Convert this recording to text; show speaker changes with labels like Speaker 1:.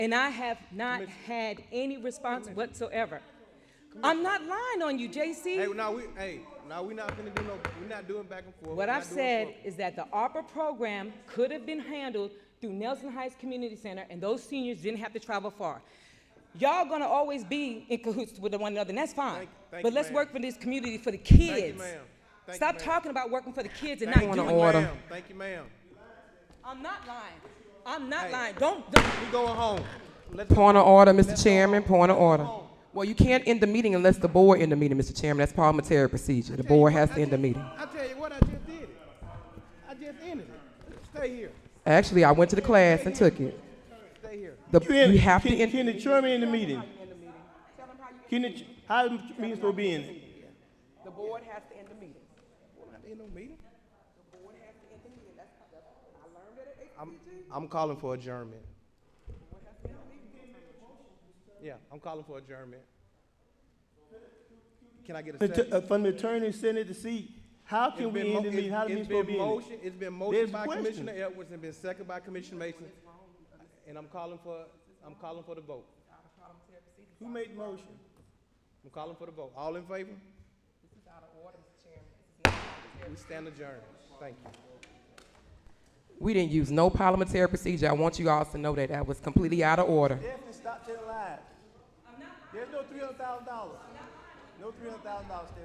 Speaker 1: And I have not had any response whatsoever. I'm not lying on you,
Speaker 2: Hey,
Speaker 1: JC.
Speaker 2: now we, hey, now we not gonna do no, we not doing back and forth.
Speaker 1: What
Speaker 2: We
Speaker 1: I've
Speaker 2: not doing
Speaker 1: said is that the ARPA program could have been handled through Nelson Heights Community Center, and those seniors didn't have to travel far. Y'all gonna always be in cahoots with one another, and that's fine.
Speaker 2: Thank- thank
Speaker 1: But
Speaker 2: you,
Speaker 1: let's
Speaker 2: ma'am.
Speaker 1: work for this community, for the
Speaker 2: you,
Speaker 1: kids.
Speaker 2: ma'am. Thank you,
Speaker 1: Stop
Speaker 2: ma'am.
Speaker 1: talking about working for the kids and
Speaker 2: Thank
Speaker 1: not
Speaker 2: you,
Speaker 1: doing
Speaker 2: ma'am.
Speaker 1: it.
Speaker 2: Thank you, ma'am.
Speaker 1: I'm not lying. I'm not
Speaker 2: Hey.
Speaker 1: lying. Don't, don't,
Speaker 2: We going home. Let's
Speaker 3: Point of order, Mr. Chairman, point of order. Well, you can't end the meeting unless the board end the meeting, Mr. Chairman. That's parliamentary procedure. The board has to end the meeting.
Speaker 2: I tell you what, I just did it. I just ended it. Stay here.
Speaker 3: Actually, I went to the class and took it.
Speaker 2: Stay here.
Speaker 3: The,
Speaker 4: You in-
Speaker 3: you have to
Speaker 4: can,
Speaker 3: end,
Speaker 4: can the chairman in the meeting? Can the, ch- how the meeting supposed to be in it?
Speaker 3: the board has to end the meeting.
Speaker 2: Ain't no meeting. I'm, I'm calling for adjournment. Yeah, I'm calling for adjournment. Can I get a
Speaker 4: The
Speaker 2: second?
Speaker 4: t- uh, From the attorney sitting at the seat, how
Speaker 2: It's
Speaker 4: can we
Speaker 2: been
Speaker 4: end
Speaker 2: mo-
Speaker 4: the meeting? How the
Speaker 2: it's-
Speaker 4: meeting
Speaker 2: it's
Speaker 4: supposed to
Speaker 2: been
Speaker 4: be in
Speaker 2: motion- It's been
Speaker 4: There's
Speaker 2: motioned
Speaker 4: a
Speaker 2: by
Speaker 4: question.
Speaker 2: Commissioner Edwards and been seconded by Commissioner Mason. And I'm calling for, I'm calling for the vote.
Speaker 4: it? Who made the motion?
Speaker 2: I'm calling for the vote. All in favor? We stand adjourned. Thank you.
Speaker 3: We didn't use no parliamentary procedure. I want you all to know that that was completely out of order.
Speaker 4: Definitely stop telling lies. There's no three hundred thousand dollars. No three hundred thousand dollars